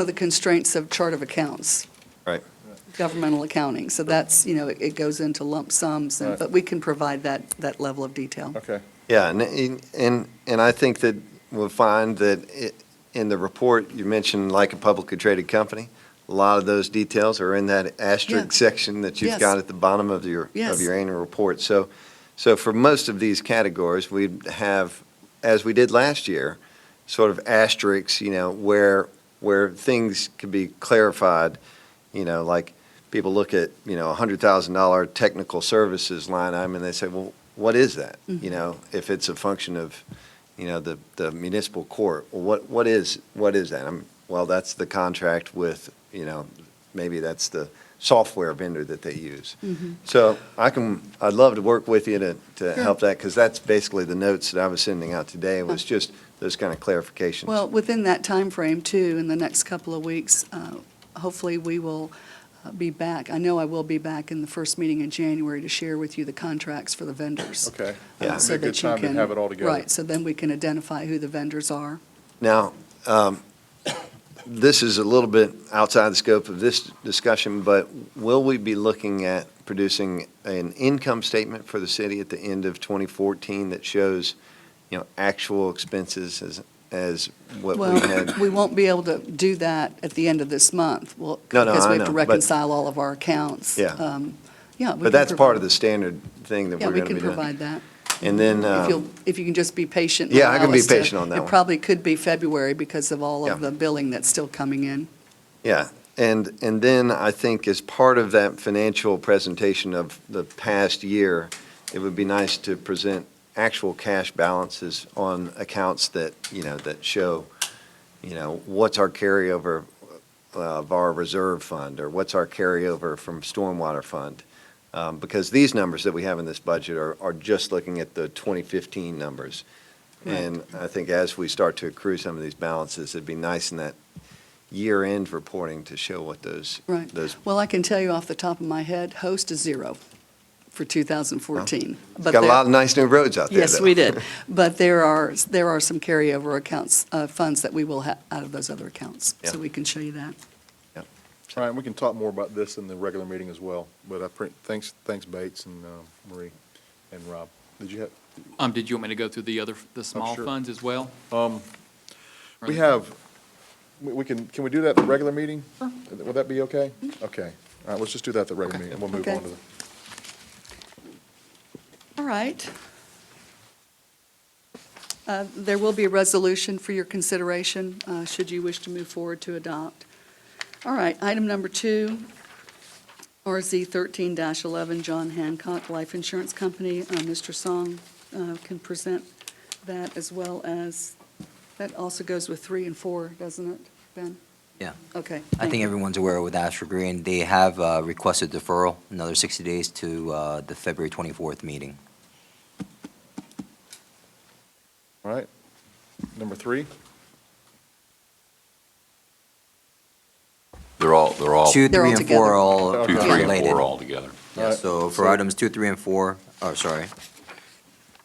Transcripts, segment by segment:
for the constraints of chart of accounts, Right. governmental accounting. So that's, you know, it- it goes into lump sums, and- Right. but we can provide that, that level of detail. Okay. Yeah, and, and, and I think that we'll find that it, in the report, you mentioned like a publicly traded company. A lot of those details are in that asterisk Yeah. section that you've Yes. got at the bottom of your, of Yes. your annual report. So, so for most of these categories, we'd have, as we did last year, sort of asterisks, you know, where, where things could be clarified, you know, like people look at, you know, a hundred thousand dollar technical services line item and they say, well, what is that? You know, if it's a function of, you know, the, the municipal court, well, what, what is, what is that? I'm, well, that's the contract with, you know, maybe that's the software vendor that they use. So I can, I'd love to work with you to, Sure. to help that, because that's basically the notes that I was sending out today, was just those kind of clarifications. Well, within that time frame too, in the next couple of weeks, uh, hopefully we will uh, be back. I know I will be back in the first meeting in January to share with you the contracts for the vendors. Okay. uh, Yeah. so It'd be a good that you time to can- have it all together. Right, so then we can identify who the vendors are. Now, um, this is a little bit outside the scope of this discussion, but will we be looking at producing an income statement for the city at the end of 2014 that shows, you know, actual expenses as, as what we had? Well, we won't be able to do that at the end of this month, well, No, no, because I we have to know, but- reconcile all of our accounts. Yeah. Um, Yeah. we can But that's part of provide- the standard thing that Yeah, we're we going to can be doing. provide that. And then, If um, you'll, if you can just be patient. and Yeah, I can allow be us to- patient on that It one. probably could be February because of all of Yeah. the billing that's still coming in. yeah, and, and then I think as part of that financial presentation of the past year, it would be nice to present actual cash balances on accounts that, you know, that show, you know, what's our carryover uh, of our reserve fund, or what's our carryover from stormwater fund? Um, Because these numbers that we have in this budget are, are just looking at the 2015 numbers. And I think as we start to accrue some of these balances, it'd be nice in that year-end reporting to show what those, Right. those, Well, I can tell you off the top of my head, Host is zero for 2014. But got a there- lot of nice new roads out there, Yes, though. we did. But there are, there are some carryover accounts, uh, funds that we will have out of those other accounts. Yeah. So we can show you that. Ryan, we can talk more about this in the regular meeting as well, but I, pre- thanks, thanks Bates and um, Marie and Rob. Did you have, Um, did you want me to go through the other, the small Oh, sure. Um, funds as well? we have, we- we can, can we do that at the regular meeting? Would that be okay? Okay. All right, let's just do that at the regular meeting, and we'll move Okay. on to the. All right. Uh, There will be a resolution for your consideration, uh, should you wish to move forward to adopt. All right, item number two, RZ 13-11, John Hancock Life Insurance Company. Uh, Mr. Song uh, can present that as well as, that also goes with three and four, doesn't it, Ben? Yeah. Okay. I thank think you. everyone's aware with Astra Green, they have uh, requested deferral, another 60 days to uh, the February 24th meeting. All right. Number three, They're all, they're all, Two, two, They're all three, and four together. are Two, all three, okay. and related. four all together. Yeah, so for So- items two, three, and four, oh, sorry.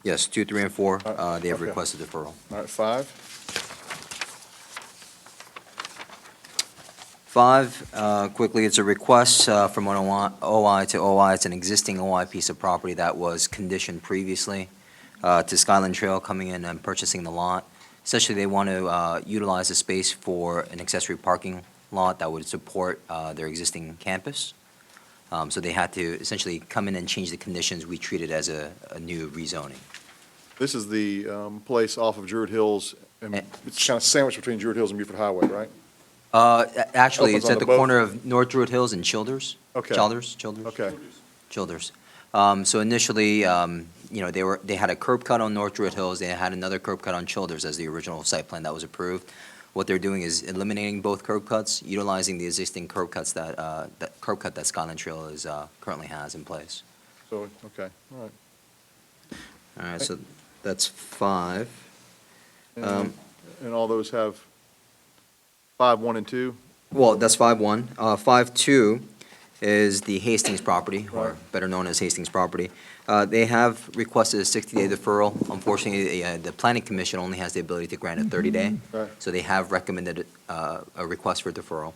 Yes, two, three, and four, All right, uh, they have okay. requested deferral. all right, five, Five, uh, quickly, it's a request uh, from an OI OI to OI. It's an existing OI piece of property that was conditioned previously uh, to Skyland Trail coming in and purchasing the lot. Essentially, they want to uh, utilize the space for an accessory parking lot that would support uh, their existing campus. Um, So they had to essentially come in and change the conditions. We treat it as a a new rezoning. this is the um, place off of Druid Hills, and Eh. it's kind of sandwiched between Druid Hills and Buford Highway, right? Uh, a- Actually, Opens it's on at the the boat. corner of North Druid Hills and Childers. Okay. Childers, Childers. Okay, Childers. Um, So initially, um, you know, they were, they had a curb cut on North Druid Hills, they had another curb cut on Childers as the original site plan that was approved. What they're doing is eliminating both curb cuts, utilizing the existing curb cuts that, uh, that curb cut that Skyline Trail is, uh, currently has in place. so, okay, all right. All right, so that's five. Um, And and all those have five, one, and two? Well, that's five one. Uh, five two is the Hastings property, or better known as Hastings property. Uh, They have requested a 60-day deferral. Unfortunately, the, uh, the Planning Commission only has the ability to grant a 30-day. Right. So they have recommended uh, a request for deferral.